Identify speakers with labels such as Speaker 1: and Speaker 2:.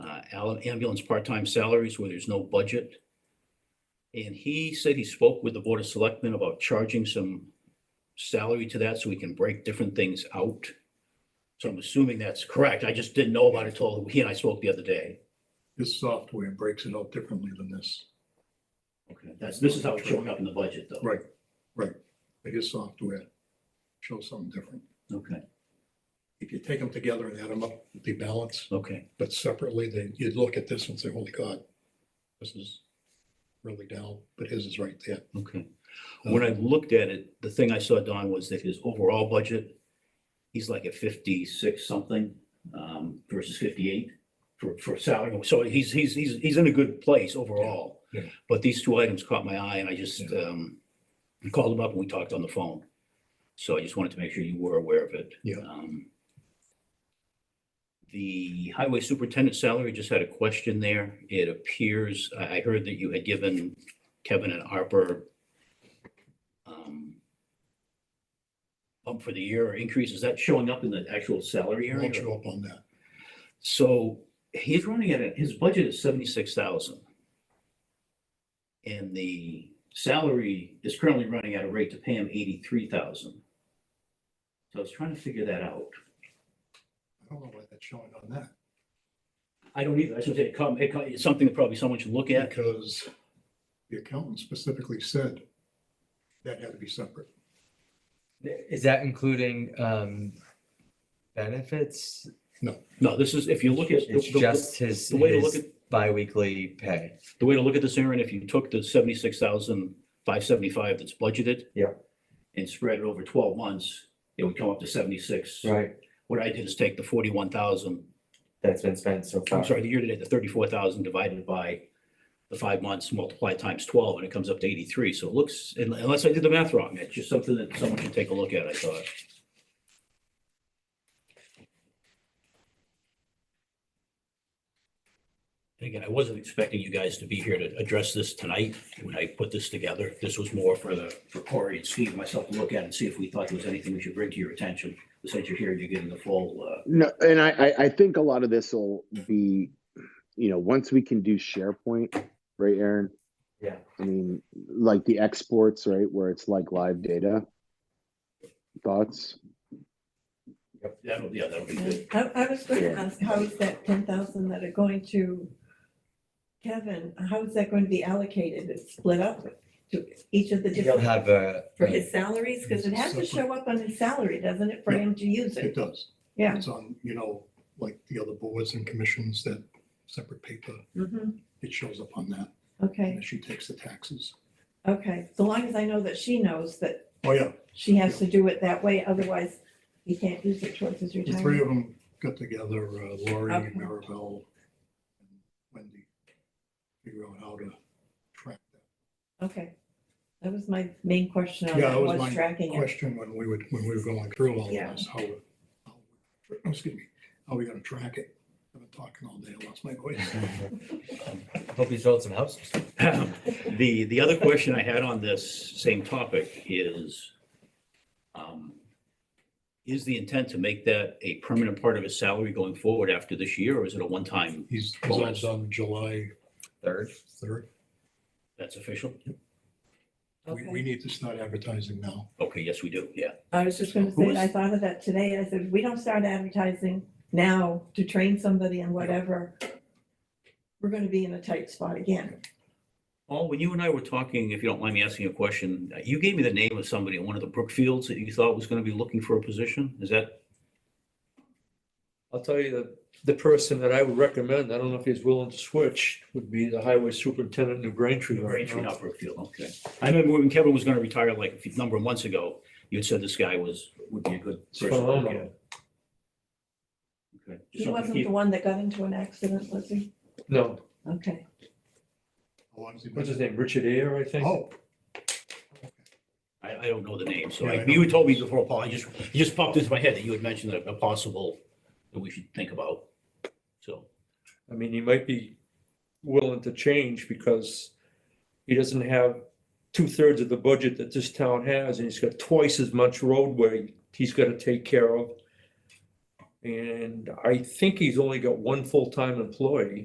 Speaker 1: Uh, al- ambulance part-time salaries where there's no budget. And he said he spoke with the Board of Selectmen about charging some salary to that so we can break different things out. So I'm assuming that's correct. I just didn't know about it till he and I spoke the other day.
Speaker 2: This software breaks it out differently than this.
Speaker 1: Okay. That's, this is how it's showing up in the budget though.
Speaker 2: Right, right. But his software shows something different.
Speaker 1: Okay,
Speaker 2: If you take them together and add them up, they balance,
Speaker 1: okay.
Speaker 2: but separately, they, you'd look at this and say, holy God, this is really down, but his is right there.
Speaker 1: Okay. When I looked at it, the thing I saw, Don, was that his overall budget, he's like at fifty-six something, um, versus fifty-eight for, for salary. So he's, he's, he's, he's in a good place overall.
Speaker 2: Yeah, yeah.
Speaker 1: But these two items caught my eye and I just,
Speaker 2: Yeah.
Speaker 1: um, I called him up and we talked on the phone. So I just wanted to make sure you were aware of it.
Speaker 2: Yeah.
Speaker 1: Um, The highway superintendent salary, just had a question there. It appears, I, I heard that you had given Kevin and Harper um, bump for the year or increase. Is that showing up in the actual salary
Speaker 2: It Won't
Speaker 1: area?
Speaker 2: show up on that.
Speaker 1: So he's running at, a- his budget is seventy-six thousand. And the salary is currently running at a rate to pay him eighty-three thousand. So I was trying to figure that out.
Speaker 2: I don't know why that's showing on that.
Speaker 1: I don't either. I should say it come, it come, it's something that probably someone should look at.
Speaker 2: Because the accountant specifically said that had to be separate.
Speaker 3: Is that including um benefits?
Speaker 1: No, this is, if you look at. the-
Speaker 3: It's
Speaker 1: the-
Speaker 3: just his
Speaker 1: the way to look
Speaker 3: his
Speaker 1: at-
Speaker 3: biweekly pay.
Speaker 1: The way to look at this, Aaron, if you took the seventy-six thousand five seventy-five that's budgeted.
Speaker 3: Yeah.
Speaker 1: And spread it over twelve months, it would come up to seventy-six.
Speaker 3: Right.
Speaker 1: What I did is take the forty-one thousand,
Speaker 3: That's been spent so far.
Speaker 1: I'm sorry, the year-to-date, the thirty-four thousand divided by the five months multiplied times twelve, and it comes up to eighty-three. So it looks, un- unless I did the math wrong, it's just something that someone should take a look at, I thought. And Again, I wasn't expecting you guys to be here to address this tonight when I put this together. This was more for the, for Corey and Steve and myself to look at and see if we thought there was anything we should bring to your attention. But Since you're here, you're getting the full, uh,
Speaker 4: No, and I, I, I think a lot of this will be, you know, once we can do SharePoint, right, Aaron?
Speaker 3: Yeah.
Speaker 4: I mean, like the exports, right, where it's like live data. Thoughts?
Speaker 1: that'll, yeah, that'll be good.
Speaker 5: I, I was going to
Speaker 4: Yeah.
Speaker 5: ask, how is that ten thousand that are going to Kevin, how is that going to be allocated? It's split up to each of the
Speaker 3: You'll
Speaker 5: different,
Speaker 3: have a.
Speaker 5: for his salaries? Because it has to
Speaker 2: Separate.
Speaker 5: show up on his salary, doesn't it, for him to use
Speaker 2: It
Speaker 5: it?
Speaker 2: does.
Speaker 5: Yeah.
Speaker 2: It's on, you know, like the other boards and commissions, that separate paper,
Speaker 5: Mhm.
Speaker 2: it shows up on that. And
Speaker 5: Okay,
Speaker 2: then she takes the taxes.
Speaker 5: okay. So long as I know that she knows that
Speaker 2: Oh, yeah,
Speaker 5: she has to do it that way, otherwise he can't use it towards his
Speaker 2: the three
Speaker 5: retirement.
Speaker 2: of them got together, uh, Lori,
Speaker 5: Okay.
Speaker 2: Maribel, and Wendy. Figure out how to track that.
Speaker 5: Okay. That was my main question on
Speaker 2: Yeah,
Speaker 5: that,
Speaker 2: that was
Speaker 5: was
Speaker 2: my
Speaker 5: tracking it.
Speaker 2: Question when we would, when we were going through all
Speaker 5: Yeah.
Speaker 2: of this, how, how- Oh, excuse me, how we gonna track it? I've been talking all day, I lost my voice.
Speaker 3: Hope you sold some houses.
Speaker 1: The, the other question I had on this same topic is, um, is the intent to make that a permanent part of his salary going forward after this year, or is it a one-time
Speaker 2: He's, he's all done July
Speaker 3: Third.
Speaker 2: third.
Speaker 1: that's official?
Speaker 2: We, we
Speaker 5: Okay.
Speaker 2: need to start advertising now.
Speaker 1: Okay, yes, we do, yeah.
Speaker 5: I was just gonna
Speaker 1: Who
Speaker 5: say, I
Speaker 1: is-
Speaker 5: thought of that today. I said, if we don't start advertising now to train somebody and whatever, we're gonna be in a tight spot again.
Speaker 1: Paul, when you and I were talking, if you don't mind me asking a question, you gave me the name of somebody in one of the Brookfields that you thought was going to be looking for a position. Is that,
Speaker 6: I'll tell you that the person that I would recommend, I don't know if he's willing to switch, would be the highway superintendent in New Braintree. right
Speaker 1: Braintree,
Speaker 6: now.
Speaker 1: not Brookfield, okay. I remember when Kevin was going to retire like a few- number of months ago, you had said this guy was, would be a good
Speaker 6: It's
Speaker 1: person. to look at.
Speaker 6: phenomenal.
Speaker 1: Okay. Just
Speaker 5: He
Speaker 1: something to
Speaker 5: wasn't
Speaker 1: keep-
Speaker 5: the one that got into an accident, was he?
Speaker 6: No,
Speaker 5: Okay.
Speaker 2: How long has he been-
Speaker 6: what's his name, Richard Ayer, I think?
Speaker 2: Oh.
Speaker 1: I, I don't know the name, so
Speaker 2: Yeah,
Speaker 1: I-
Speaker 2: I
Speaker 1: you
Speaker 2: know.
Speaker 1: had told me before, Paul, I just, it just popped into my head that you had mentioned a a possible that we should think about. So,
Speaker 6: I mean, he might be willing to change because he doesn't have two thirds of the budget that this town has, and he's got twice as much roadway he's gotta take care of. And I think he's only got one full-time employee.